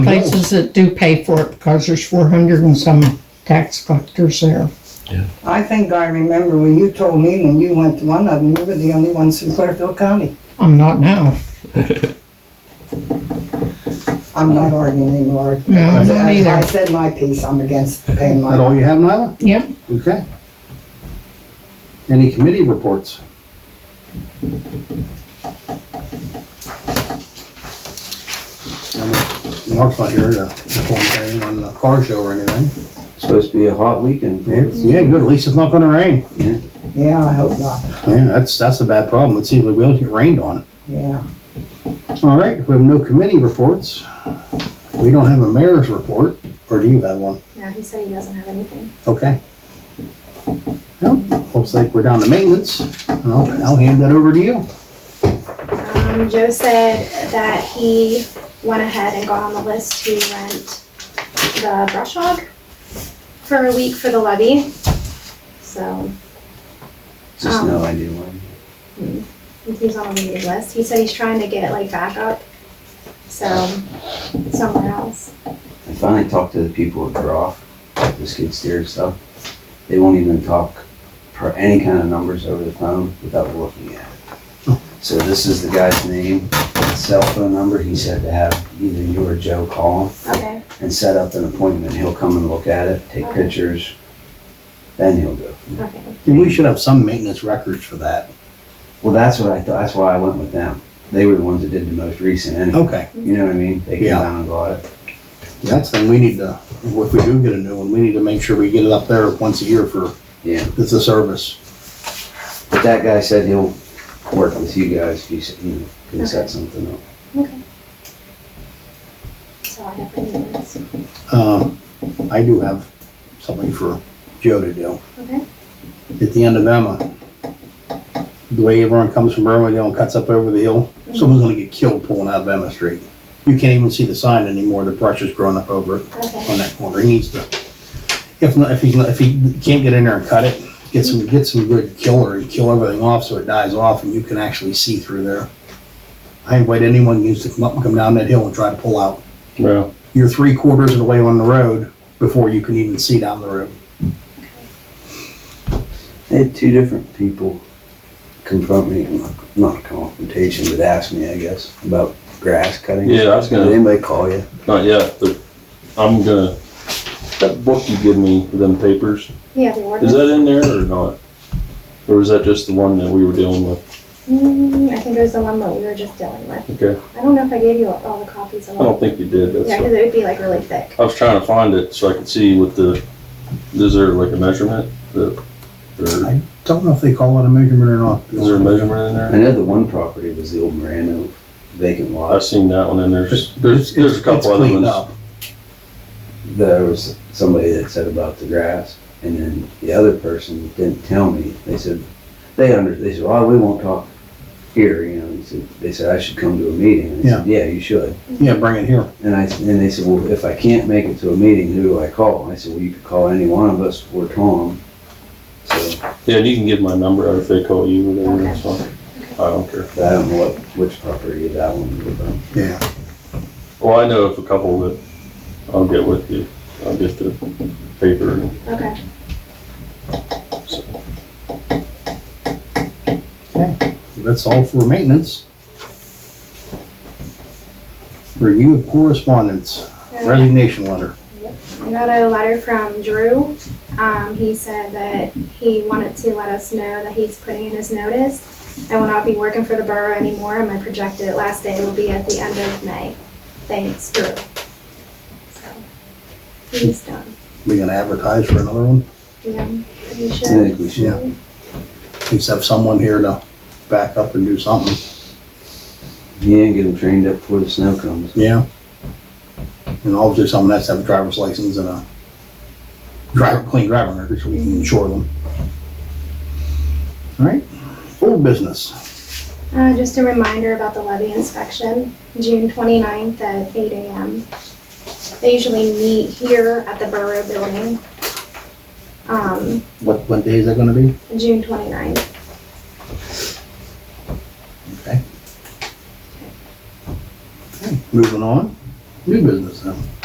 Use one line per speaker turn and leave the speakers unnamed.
places that do pay for it because there's four hundred and some tax collectors there.
I think I remember when you told me when you went to one of them, you were the only ones from Clearfield County.
I'm not now.
I'm not arguing anymore.
No, I'm not
I- I
either.
said my piece, I'm against paying
That all
my,
you have, Nyla?
Yep,
Okay. Any committee reports? And Mark's not here to perform anything on the car show or anything.
Supposed to be a hot weekend.
Yeah, good, at least it's not gonna rain.
yeah, I hope not,
Yeah, that's, that's a bad problem, it seems like we will get rained on.
yeah.
All right, we have no committee reports. We don't have a mayor's report, or do you have one?
No, he said he doesn't have anything.
Okay. Well, looks like we're down to maintenance, I'll, I'll hand that over to you.
Um, Joe said that he went ahead and got on the list to rent the brush hog for a week for the levy. So
Just no idea why.
he's on the waiting list. He said he's trying to get it like back up. So somewhere else.
I finally talked to the people at Groff, the skid steer stuff. They won't even talk for any kind of numbers over the phone without looking at it. So this is the guy's name, cell phone number. He said to have either you or Joe call him
Okay.
and set up an appointment. He'll come and look at it, take
Okay.
pictures, then he'll go.
Okay.
And we should have some maintenance records for that.
Well, that's what I thought. That's why I went with them. They were the ones that did the most recent anyway.
Okay.
You know what I mean? They came
Yeah.
down and got it.
That's, and we need to, if we do get a new one, we need to make sure we get it up there once a year for,
Yeah.
it's a service.
But that guy said he'll work with you guys if you, s- you know, can set something up.
Okay. So I have been this.
Um, I do have something for Joe to do.
Okay.
At the end of Emma, the way everyone comes from Irwindale and cuts up over the hill, someone's gonna get killed pulling out of Emma Street. You can't even see the sign anymore, the brush is growing up over it
Okay.
on that corner. He needs to, if not, if he's, not- if he can't get in there and cut it, get some, get some good killer and kill everything off so it dies off and you can actually see through there. I invite anyone who needs to come up and come down that hill and try to pull out.
Well,
You're three quarters of the way on the road before you can even see down the road.
They had two different people confront me, not- not a confrontation, but ask me, I guess, about grass cutting.
yeah, I was
Did
gonna,
anybody call you?
not yet, but I'm gonna, that book you give me, them papers,
Yeah, the ordinance.
is that in there or not? Or was that just the one that we were dealing with?
Mm, I think it was the one that we were just dealing with.
Okay,
I don't know if I gave you all the copies of
I
all
don't think you did,
Yeah,
that's,
because it would be like really thick.
I was trying to find it so I could see what the, is there like a measurement? The, or
Don't know if they call it a measurement or not.
is there a measurement in
I
there?
know the one property was the old Morano vacant
I've
lot.
seen that one and there's,
It's-
there's, there's a
it's
couple other
cleaned
ones.
up.
There was somebody that said about the grass, and then the other person didn't tell me. They said, they under, they said, oh, we won't talk here, you know, they said, they said, I should come to a meeting. And I said, Yeah, you should.
Yeah, bring it here.
And I, and they said, well, if I can't make it to a meeting, who do I call? And I said, well, you could call any one of us or Tom. So,
Yeah, and you can give my number out if they call you or whatever,
Okay.
that's fine. I don't care.
but I don't know what, which property that one was on.
Yeah.
Well, I know of a couple that I'll get with you. I'll get the paper and
Okay.
so.
That's all for maintenance. Review of correspondence, resignation letter.
I got a letter from Drew. Um, he said that he wanted to let us know that he's putting in his notice. I will not be working for the borough anymore, and my projected last day will be at the end of May. Thanks, Drew. So, he's done.
We gonna advertise for another one?
Yeah, pretty
I
sure.
think we should,
At least have someone here to back up and do something.
yeah, get them trained up before the snow comes.
Yeah. And obviously someone has to have a driver's license and a driver, clean driving record so we can insure them. All right, old business.
Uh, just a reminder about the levy inspection, June 29th at eight AM. They usually meet here at the Borough Building, um,
What, what day is that gonna be?
June 29th.
Moving on. New business, huh?